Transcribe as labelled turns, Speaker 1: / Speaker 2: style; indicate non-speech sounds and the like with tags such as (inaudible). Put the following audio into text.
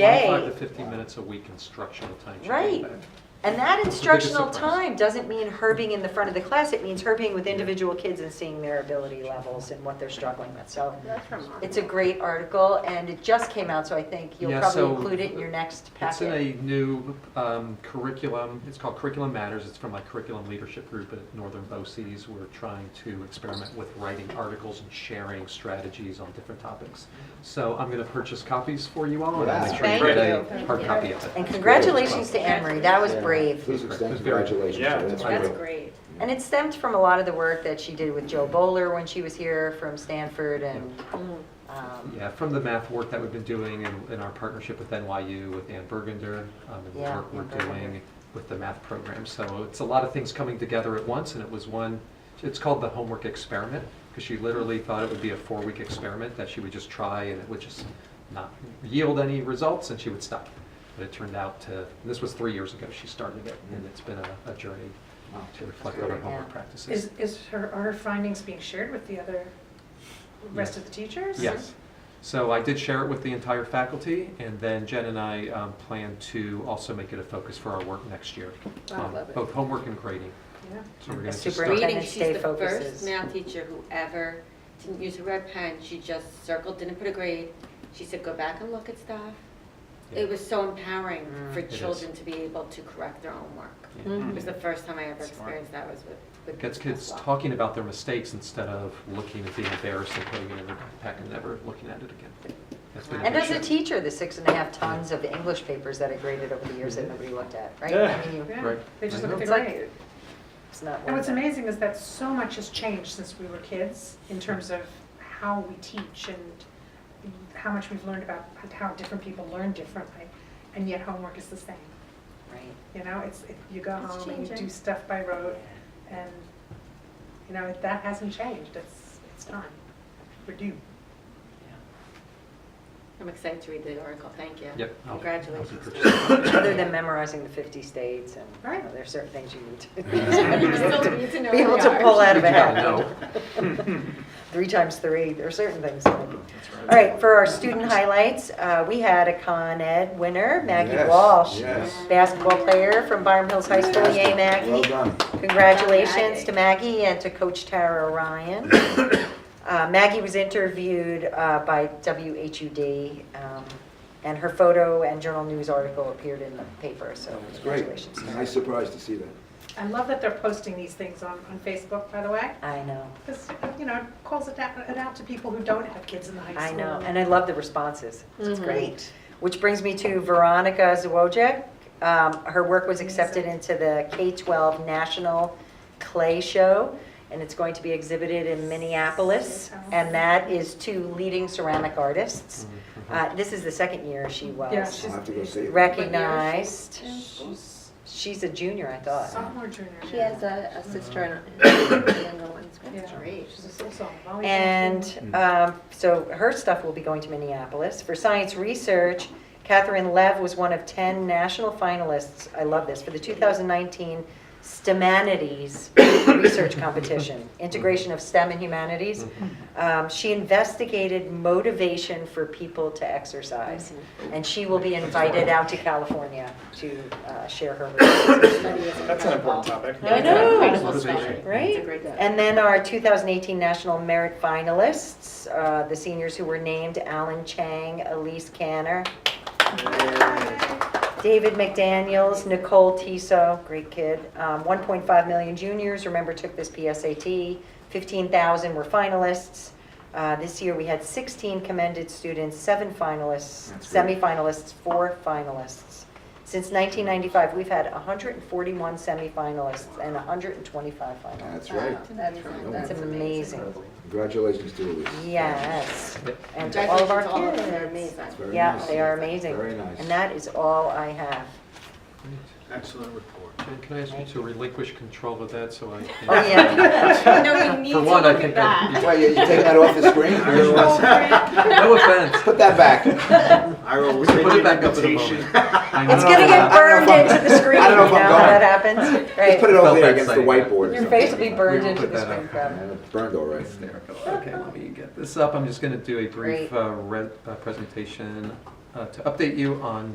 Speaker 1: day.
Speaker 2: 25 to 50 minutes a week instructional time. should be
Speaker 1: Right.
Speaker 2: back.
Speaker 1: And that
Speaker 2: biggest
Speaker 1: instructional
Speaker 2: surprise.
Speaker 1: time doesn't mean herbing in the front of the class, it means herbing with individual kids and seeing their ability levels and what they're struggling with. So
Speaker 3: That's remarkable.
Speaker 1: it's a great article, and it just came out, so I think you'll
Speaker 2: Yeah,
Speaker 1: probably
Speaker 2: so
Speaker 1: include it in your next
Speaker 2: It's in
Speaker 1: packet.
Speaker 2: a new um, curriculum, it's called Curriculum Matters, it's from my curriculum leadership group at Northern BOCES. We're trying to experiment with writing articles and sharing strategies on different topics. So I'm going to purchase copies for you all, and I'll make sure
Speaker 1: Thank
Speaker 2: you get
Speaker 3: you.
Speaker 2: a hard copy of it.
Speaker 1: And congratulations to Anne Marie, that was
Speaker 4: Yeah.
Speaker 1: brave.
Speaker 4: Please extend
Speaker 2: That's very-
Speaker 4: congratulations.
Speaker 5: Yeah.
Speaker 4: to her. That's
Speaker 2: That's
Speaker 4: great.
Speaker 3: great.
Speaker 1: And it stemmed from a lot of the work that she did with Joe Bowler when she was here from Stanford and,
Speaker 3: Mm.
Speaker 1: um,
Speaker 2: Yeah, from the math work that we've been doing in, in our partnership with NYU, with Ann Bergender, um, and the
Speaker 1: Yeah,
Speaker 2: work we're
Speaker 1: Ann Bergender.
Speaker 2: doing with the math program. So it's a lot of things coming together at once, and it was one, it's called the homework experiment, because she literally thought it would be a four-week experiment that she would just try, and it would just not yield any results, and she would stop. But it turned out to, this was three years ago she started it, and it's been a, a journey to reflect on our homework
Speaker 1: Yeah.
Speaker 2: practices.
Speaker 6: Is, is her, are her findings being shared with the other, rest of the teachers?
Speaker 2: Yes. So I did share it with the entire faculty, and then Jen and I um, plan to also make it a focus for our work next year.
Speaker 3: Wow,
Speaker 2: um,
Speaker 3: love it.
Speaker 2: Both homework and grading.
Speaker 6: Yeah.
Speaker 2: So we're
Speaker 1: A
Speaker 2: going to
Speaker 1: super-
Speaker 2: start.
Speaker 3: Reading,
Speaker 1: Superintendent
Speaker 3: she's
Speaker 1: stay
Speaker 3: the
Speaker 1: focuses.
Speaker 3: first math teacher who ever didn't use a red pen. She just circled, didn't put a grade. She said, go back and look at stuff.
Speaker 2: Yeah.
Speaker 3: It was so empowering for
Speaker 2: It is.
Speaker 3: children to be able to correct their own work.
Speaker 2: Yeah.
Speaker 3: mm-hmm, It was the first time I ever
Speaker 5: Smart.
Speaker 3: experienced that was with, with.
Speaker 2: Gets
Speaker 3: as
Speaker 2: kids
Speaker 3: well.
Speaker 2: talking about their mistakes instead of looking and being embarrassed and putting it in their backpack and never looking at it again. That's been a
Speaker 1: and
Speaker 2: big
Speaker 1: as a
Speaker 2: shift.
Speaker 1: teacher, the six and a half tons of English papers that I graded over the years that nobody looked at, right? I mean, you-
Speaker 6: Yeah,
Speaker 2: Right.
Speaker 6: they just look at the
Speaker 1: It's like-
Speaker 6: grade.
Speaker 1: It's not
Speaker 6: And
Speaker 1: worth
Speaker 6: what's
Speaker 1: it.
Speaker 6: amazing is that so much has changed since we were kids in terms of how we teach and how much we've learned about how different people learn differently, and yet homework is the same.
Speaker 1: Right.
Speaker 6: You know, it's, it- you go
Speaker 3: It's
Speaker 6: home and you
Speaker 3: changing.
Speaker 6: do stuff by rote, and, you know, that hasn't changed. It's, it's time. We're due.
Speaker 3: I'm excited to read the article. Thank you.
Speaker 2: Yep. I'll- I'll be
Speaker 3: Congratulations.
Speaker 2: purchasing it.
Speaker 1: Other than memorizing the 50 states and, you know,
Speaker 6: Right.
Speaker 1: there's certain things you need to.
Speaker 3: (laughs)
Speaker 1: (laughs)
Speaker 3: You still need to know
Speaker 1: Be able
Speaker 3: the
Speaker 1: to pull
Speaker 3: yards.
Speaker 1: out of a
Speaker 2: You gotta
Speaker 1: hat. (laughs) Three times three, there are certain things. that I can- All right, for our student highlights, uh, we had a Con Ed winner, Maggie
Speaker 4: Yes,
Speaker 1: Walsh.
Speaker 4: yes.
Speaker 1: Basketball player from Byram Hills High School, yay Oh,
Speaker 4: Fantastic. Well
Speaker 1: Maggie.
Speaker 4: done.
Speaker 1: Congratulations
Speaker 3: Maggie.
Speaker 1: to Maggie and to Coach Tara Ryan. (coughs) Uh, Maggie was interviewed uh, by WHUD, um, and her photo and journal news article appeared in the paper, so
Speaker 4: It's great.
Speaker 1: congratulations. to her.
Speaker 4: Nice surprise to see that.
Speaker 6: I love that they're posting these things on, on Facebook, by the way,
Speaker 1: I know,
Speaker 6: because, you know, it calls it out, it out to people who don't have kids in the high school.
Speaker 1: I know, and I love the responses. It's
Speaker 6: Mm-hmm.
Speaker 3: Mhm.
Speaker 1: great. Which brings me to Veronica Zwojek. Um, Her work was accepted into the K-12 National Clay Show, and it's going to be exhibited in Minneapolis, and that is two leading ceramic artists.
Speaker 2: Mm-hmm.
Speaker 3: Mm-hmm.
Speaker 1: Uh, This is the second year she
Speaker 6: Yeah,
Speaker 1: was
Speaker 6: she's-
Speaker 4: I'll have to go see it.
Speaker 1: recognized.
Speaker 6: She's
Speaker 1: She's a junior, I thought.
Speaker 6: sophomore, junior.
Speaker 3: She has a, a sister and (coughs) a younger one. That's
Speaker 6: Yeah.
Speaker 3: great.
Speaker 6: She's a sophomore. I've always been-
Speaker 1: And um, so her stuff will be going to Minneapolis. For science research, Catherine Lev was one of 10 national finalists, I love this, for the 2019 STEManities Research Competition, Integration of STEM and
Speaker 2: Mm-hmm.
Speaker 1: Humanities. Um, She investigated motivation for people to exercise, and she will be invited out to California to uh, share her research.
Speaker 5: That's an important topic.
Speaker 1: I know.
Speaker 3: Incredible
Speaker 2: Motivation.
Speaker 3: story.
Speaker 1: Right?
Speaker 3: It's a great
Speaker 1: And then our 2018 National Merit Finalists, uh, the seniors who were named, Alan Chang, Elise Canner, David McDaniels, Nicole Tiso, great kid. Um, 1.5 million juniors, remember, took this PSAT. 15,000 were finalists. Uh, This year, we had 16 commended students, seven finalists,
Speaker 4: That's great.
Speaker 1: semifinalists, four finalists. Since 1995, we've had 141 semifinalists and 125 finalists.
Speaker 4: That's right.
Speaker 1: That's
Speaker 3: Oh,
Speaker 4: That's
Speaker 1: amazing.
Speaker 4: Congratulations to Elise.
Speaker 1: Yes.
Speaker 2: Yep.
Speaker 1: And to all of our
Speaker 3: Congratulations to all of them. They're
Speaker 1: kids.
Speaker 3: amazing.
Speaker 4: It's very
Speaker 3: (laughs)
Speaker 1: Yeah,
Speaker 4: nice.
Speaker 1: they are amazing.
Speaker 4: Very nice.
Speaker 1: And that is all I have.
Speaker 5: Excellent report.
Speaker 2: Jen, can I ask you to relinquish control of that so I can?
Speaker 1: Oh, yeah.
Speaker 3: No, we need to
Speaker 2: For one, I
Speaker 3: look at
Speaker 2: think
Speaker 3: that.
Speaker 2: I'd
Speaker 4: Why, you you taking that off the screen?
Speaker 2: be- (laughs) No offense.
Speaker 4: Put
Speaker 1: (laughs)
Speaker 4: that back.
Speaker 5: I will
Speaker 2: We can
Speaker 5: rescind
Speaker 2: put it
Speaker 5: the
Speaker 2: back up in a
Speaker 5: invitation.
Speaker 2: moment. (laughs)
Speaker 1: It's gonna
Speaker 4: I
Speaker 1: get
Speaker 4: don't know if
Speaker 1: burned
Speaker 4: I'm-
Speaker 1: into the screen, you
Speaker 4: (laughs) I don't know
Speaker 1: know
Speaker 4: if
Speaker 1: how
Speaker 4: I'm
Speaker 1: that
Speaker 4: going.
Speaker 1: happens?
Speaker 4: Just put it
Speaker 1: Right.
Speaker 4: over
Speaker 2: Felt
Speaker 4: there
Speaker 2: that
Speaker 4: against the
Speaker 2: exciting.
Speaker 4: whiteboard or
Speaker 1: Your face will be
Speaker 4: something.
Speaker 1: burned
Speaker 2: We will
Speaker 1: into
Speaker 2: put
Speaker 1: the
Speaker 2: that
Speaker 1: screen,
Speaker 2: up.
Speaker 1: probably.
Speaker 4: And it's Burned all right.
Speaker 2: Hysterical. Okay, let me get this up. I'm just going to do a brief
Speaker 1: Great.
Speaker 2: uh, re- uh, presentation uh, to update you on